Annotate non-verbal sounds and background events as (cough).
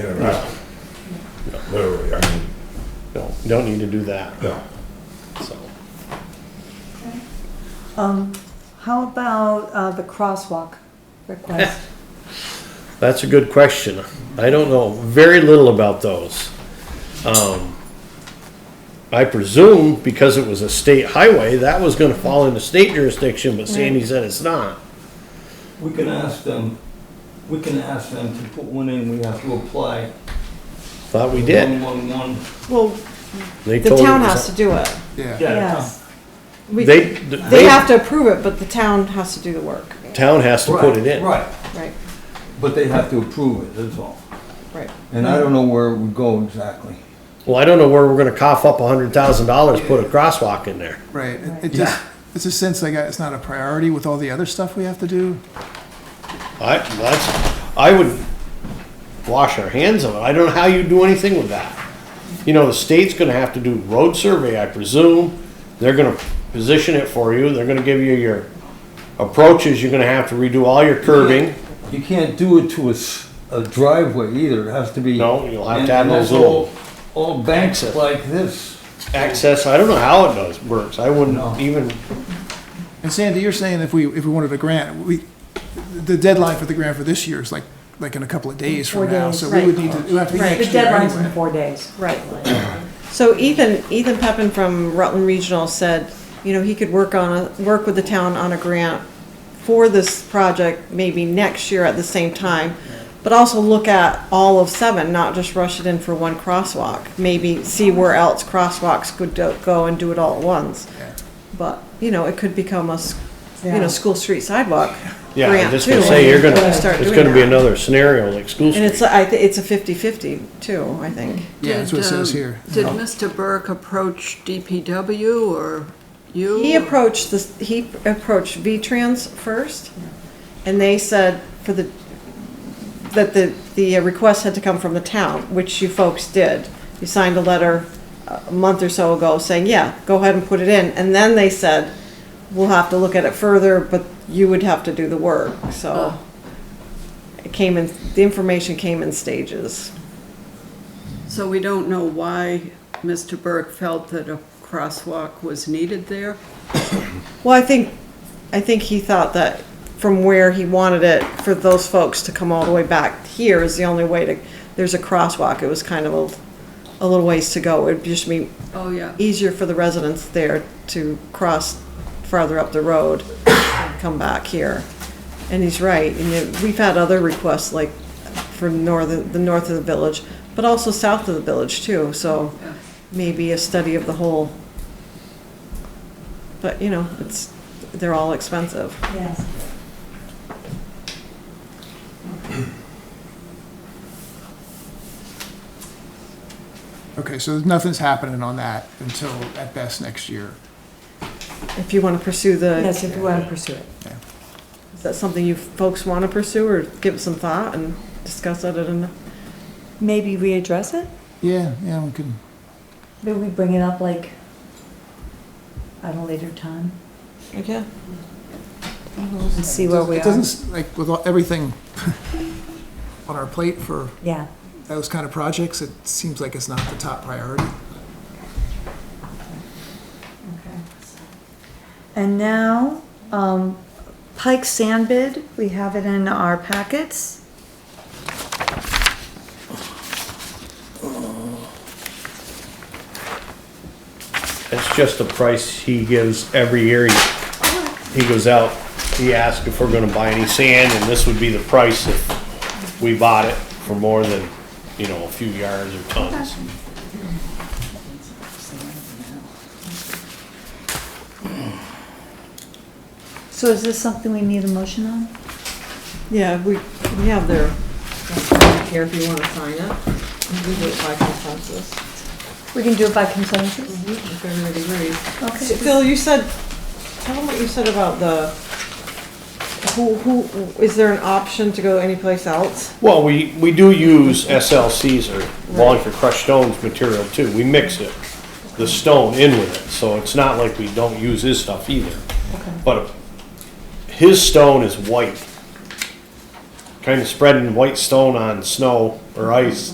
in and out. Literally, I mean, No, don't need to do that, no. so. Um, how about, uh, the crosswalk request? That's a good question. I don't know very little about those. Um, I presume because it was a state highway, that was gonna fall into state jurisdiction, but Sandy said it's not. We can ask them, we can ask them to put one in, we have to apply. Thought we did. One-one-one. Well, They The told it town was- has to do it. yes. We- They, They have they, to approve it, but the town has to do the work, town has to put it in. Right, right, but they have to approve it, that's all. right. And I don't know where it would go exactly. Well, I don't know where we're gonna cough up a hundred thousand dollars, put a crosswalk in there. Right, it- it just, it's a sense like uh, it's not a priority with all the other stuff we have to do. I, that's, I would wash our hands of it. I don't know how you do anything with that. You know, the state's gonna have to do road survey, I presume. They're gonna position it for you. They're gonna give you your approaches. You're gonna have to redo all your curbing. You can't do it to a, s- a driveway either, it has to be. No, you'll have to And- have and those that's little- All all banks like this. Access, I don't know how it does, works. I No. wouldn't even, And Sandy, you're saying if we, if we wanted a grant, we, the deadline for the grant for this year is like, like in a couple of days Four from now, days, so we would need to, it would have to be Right. The next year deadline's in anyway. four days. Right. So Ethan, Ethan Peppin from Rutland Regional said, you know, he could work on, a work with the town on a grant for this project maybe next year at the same time, but also look at all of seven, not just rush it in for one crosswalk. Maybe see where else crosswalks could do- go and do it all at once. But, you know, it could become a, s- you Yeah. know, school street sidewalk yeah, I'm grant just too. gonna say, you're when gonna, we start it's doing gonna be that. another scenario like school And it's, street. I, thi- it's a fifty-fifty too, I think. Yeah, that's what it Did, says um, here. Did Mr. Burke approach DPW or you? He approached this, he approached V-Trans first, and they said for the, that the, the request had to come from the town, which you folks did. You signed a letter uh, a month or so ago saying, yeah, go ahead and put it in, and then they said, we'll have to look at it further, but you would have to do the work, so. It came in, the information came in stages. So we don't know why Mr. Burke felt that a crosswalk was needed there? Well, I think, I think he thought that from where he wanted it, for those folks to come all the way back here is the only way to, there's a crosswalk, it was kind of a, a little ways to go, it'd just be Oh, yeah. easier for the residents there to cross farther up the road and come back here. And he's right, and yet we've had other requests like for northern, the north of the village, but also south of the village too, so Yeah. maybe a study of the whole. But, you know, it's, they're all expensive. Yes. Okay, so nothing's happening on that until at best next year. If you want to pursue the, Yes, is if you want to pursue it. that something you folks want to pursue or give it some thought and discuss it at an, Maybe readdress it? Yeah, yeah, we can, Maybe we bring it up like at a later time okay? and see where we it are. doesn't, s- like, with all- everything (laughs) on our plate for Yeah. those kind of projects, it seems like it's not the top priority. Okay. And now, um, Pike Sand Bid, we have it in our packets. It's just the price he gives every year. He he goes out, he asks if we're gonna buy any sand, and this would be the price if we bought it for more than, you know, a few yards or tons. So is this something we need a motion on? Yeah, we, we have their, here if you want to sign it. We do it by consensus. We can do it by consensus? If everybody agrees. Okay. Phil, you said, tell them what you said about the, who, who, is there an option to go anyplace else? Well, we, we do use SLCs or Wallingford crushed stones material too. We mix it, the stone in with it, so it's not like we don't use his stuff either. But his stone is white. Kind of spreading white stone on snow or ice